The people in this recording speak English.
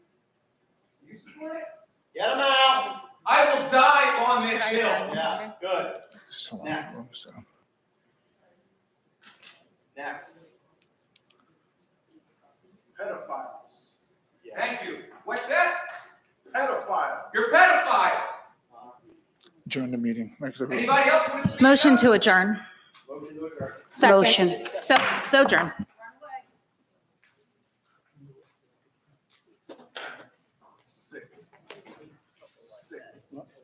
Get them out. I will die on Should this I hill. drive this Yeah, over? good. Just a lot Next. of room, so. Next. pedophiles. Yeah. Thank you. What's that? Pedophile. You're pedophiles. Uh, Adjourn the meeting. Make the- Anybody else want to speak? Motion to adjourn. Motion to adjourn. Second. Motion. So, sojourn.